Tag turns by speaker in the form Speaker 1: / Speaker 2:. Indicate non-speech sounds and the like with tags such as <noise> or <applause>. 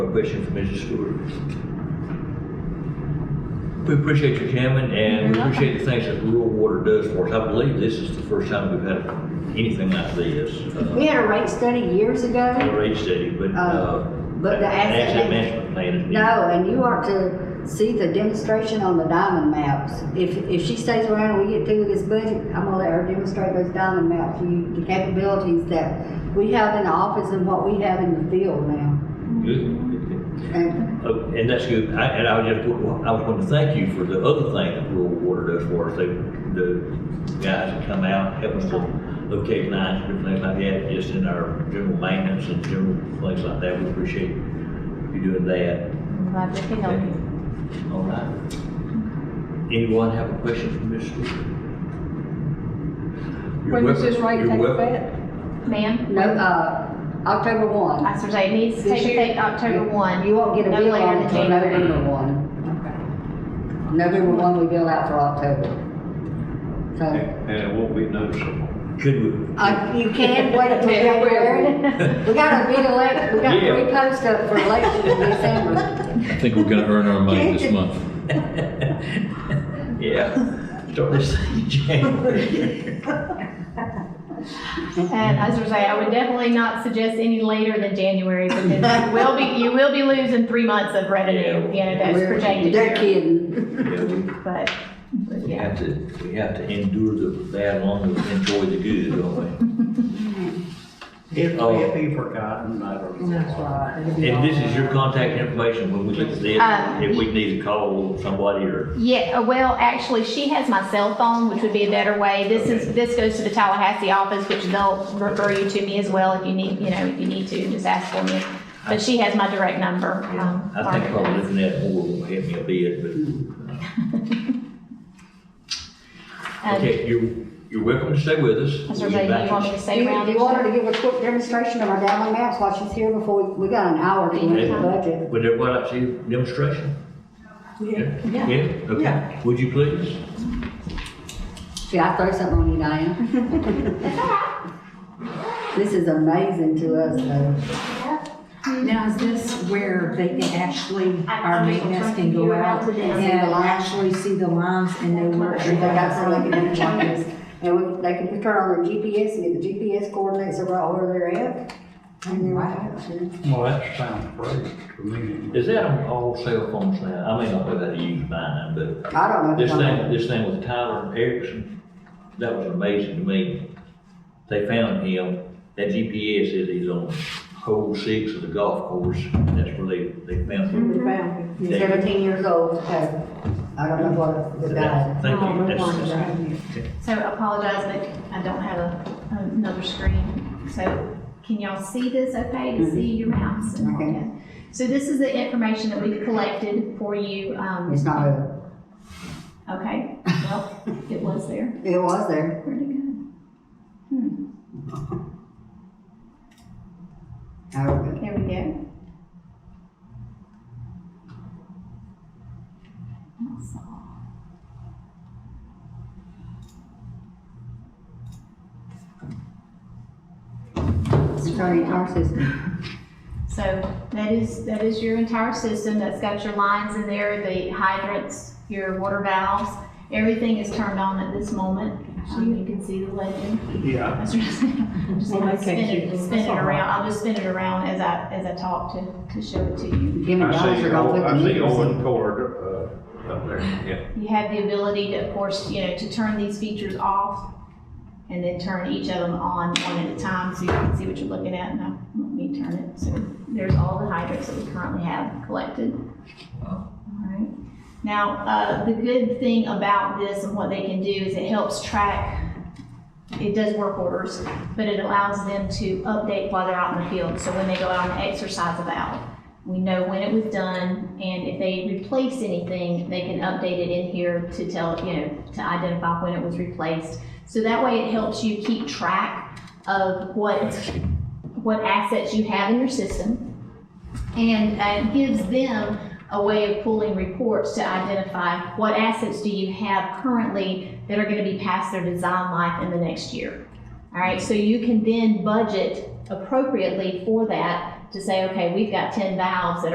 Speaker 1: question for Mrs. Stewart. We appreciate you coming and we
Speaker 2: You're welcome.
Speaker 1: appreciate the things that rural water does for us. I believe this is the first time we've had anything like this. uh,
Speaker 2: We had a rate study years
Speaker 1: on
Speaker 2: ago.
Speaker 1: a rate study, but, uh.
Speaker 2: Um, but the
Speaker 1: an
Speaker 2: asset
Speaker 1: Asset
Speaker 2: man-
Speaker 1: management plan is. needed.
Speaker 2: No, and you are to see the demonstration on the diamond maps. If, if she stays around and we get through with this budget, I'm gonna let her demonstrate those diamond maps, you, the capabilities that we have in the office and what we have in the field now.
Speaker 1: Good.
Speaker 2: And
Speaker 1: Oh, And that's good. I, and I was just, I was going to thank you for the other thing that Rural Water does for us. They, the guys that come out, help us to locate lines and things like that, just in our general maintenance and general things like that. We appreciate you doing that.
Speaker 3: Glad we can help you.
Speaker 1: All right. Anyone have a question for Ms. Stewart?
Speaker 4: When does this rate take effect?
Speaker 3: Ma'am,
Speaker 2: no, uh, October one.
Speaker 3: officers, it needs to
Speaker 2: This
Speaker 3: take
Speaker 2: year-
Speaker 3: effect October one.
Speaker 2: You won't get a
Speaker 3: no
Speaker 2: bill
Speaker 3: later
Speaker 2: on
Speaker 3: than
Speaker 2: it until
Speaker 3: January. <laughs>
Speaker 2: November one. November one, we bill out for October. So,
Speaker 5: And it won't be noticeable.
Speaker 1: Could we?
Speaker 2: uh, you can wait
Speaker 3: <laughs>
Speaker 2: until <laughs> January. We got a big elect, we got
Speaker 1: Yeah.
Speaker 2: three posts up for election in December.
Speaker 6: I think we're gonna earn our money this month.
Speaker 1: <laughs> Yeah. Start this thing in January.
Speaker 3: And as I say, I would definitely not suggest any later than January
Speaker 2: <laughs>
Speaker 3: because you will be, you will be losing three months of revenue, you know, that's
Speaker 2: We're-
Speaker 3: projected
Speaker 2: They're
Speaker 3: here.
Speaker 2: kidding.
Speaker 4: <laughs>
Speaker 1: Yeah, we-
Speaker 3: But, but
Speaker 1: We
Speaker 3: yeah.
Speaker 1: have to, we have to endure the bad long to enjoy the good, don't
Speaker 5: If
Speaker 1: Oh.
Speaker 5: be forgotten, I don't know.
Speaker 4: That's right. It'll
Speaker 1: we?
Speaker 4: be
Speaker 1: Oh, And this
Speaker 4: all
Speaker 1: is your
Speaker 2: uh,
Speaker 4: right.
Speaker 1: contact information when we look at this,
Speaker 3: Um,
Speaker 1: if we need to call somebody or,
Speaker 3: Yeah, uh, well, actually, she has my cell phone, which would be a better way. This is, this goes to the Tallahassee office, which they'll refer you to me as well if you need, you know, if you need to, just ask for me. But she has my direct number. um,
Speaker 1: I think
Speaker 3: Margaret
Speaker 1: probably
Speaker 3: does.
Speaker 1: looking at more will help me a bit, but. uh,
Speaker 3: Um,
Speaker 1: Okay, you're, you're welcome to stay with us.
Speaker 3: Mr.
Speaker 1: We'll be
Speaker 3: Zay, do
Speaker 1: back
Speaker 3: you
Speaker 1: in-
Speaker 3: want me to
Speaker 2: Do
Speaker 3: stay
Speaker 2: you,
Speaker 3: around?
Speaker 2: do you want her to give a quick demonstration of our diamond maps while she's here before, we, we got an hour to make the budget?
Speaker 1: Would everybody like to see a demonstration? Yeah.
Speaker 3: Yeah.
Speaker 1: Yeah, okay.
Speaker 4: Yeah.
Speaker 1: Would you please?
Speaker 2: See, I throw something on you, Diane. This is amazing to us, though.
Speaker 7: Now, is this where they can actually, our maintenance can go out
Speaker 2: See the
Speaker 7: and
Speaker 2: lines.
Speaker 7: actually see the lines and know where
Speaker 2: They got
Speaker 7: everything
Speaker 2: something in Chinese, and we, they can turn on their GPS and get the GPS coordinates of right where they're at. And they're right.
Speaker 5: Well, that sounds great to me.
Speaker 1: Is that on all cell phones now? I may not know how to use mine, but
Speaker 2: I don't know. if
Speaker 1: This
Speaker 2: it's on-
Speaker 1: thing, this thing with Tyler and Erickson, that was amazing to me. They found him, that GPS says he's on hole six of the golf course, that's where they, they found him.
Speaker 4: We found it.
Speaker 2: He's Seventeen years old, okay. I don't know what, the guy.
Speaker 1: Thank
Speaker 4: Oh,
Speaker 1: you,
Speaker 4: we're
Speaker 1: that's,
Speaker 4: going
Speaker 1: that's-
Speaker 4: down here.
Speaker 3: So I apologize, but I don't have a, another screen. So can y'all see this okay to see your mouse? and all
Speaker 2: Mm-hmm. Okay.
Speaker 3: that? So this is the information that we've collected for you. um,
Speaker 2: It's not a,
Speaker 3: Okay, well, it was there.
Speaker 2: it was there.
Speaker 3: Where'd it go?
Speaker 2: I don't know.
Speaker 3: There we go. That's all.
Speaker 2: It's turning our system.
Speaker 3: So that is, that is your entire system, that's got your lines in there, the hydrants, your water valves, everything is turned on at this moment. Um, You can see the legend. <laughs>
Speaker 5: Yeah.
Speaker 3: That's what I'm saying. Just
Speaker 4: Well,
Speaker 3: kinda
Speaker 4: that's
Speaker 3: spin
Speaker 4: cute.
Speaker 3: it, spin
Speaker 4: That's
Speaker 3: it
Speaker 4: all right.
Speaker 3: around, I'll just spin it around as I, as I talk to, to show it to you.
Speaker 2: Jimmy
Speaker 5: I
Speaker 2: Dodds
Speaker 5: see,
Speaker 2: are
Speaker 5: Owen-
Speaker 2: gonna put the
Speaker 5: I see
Speaker 2: meters in.
Speaker 5: Owen Cord, uh, up there, yeah.
Speaker 3: You have the ability to, of course, you know, to turn these features off and then turn each of them on one at a time so you can see what you're looking at. Now, let me turn it. So there's all the hydrants that we currently have collected. All right. Now, uh, the good thing about this and what they can do is it helps track, it does work orders, but it allows them to update while they're out in the field. So when they go out and exercise about, we know when it was done, and if they replace anything, they can update it in here to tell, you know, to identify when it was replaced. So that way it helps you keep track of what, what assets you have in your system. And uh, gives them a way of pulling reports to identify what assets do you have currently that are gonna be past their design life in the next year. All right, so you can then budget appropriately for that to say, okay, we've got ten valves that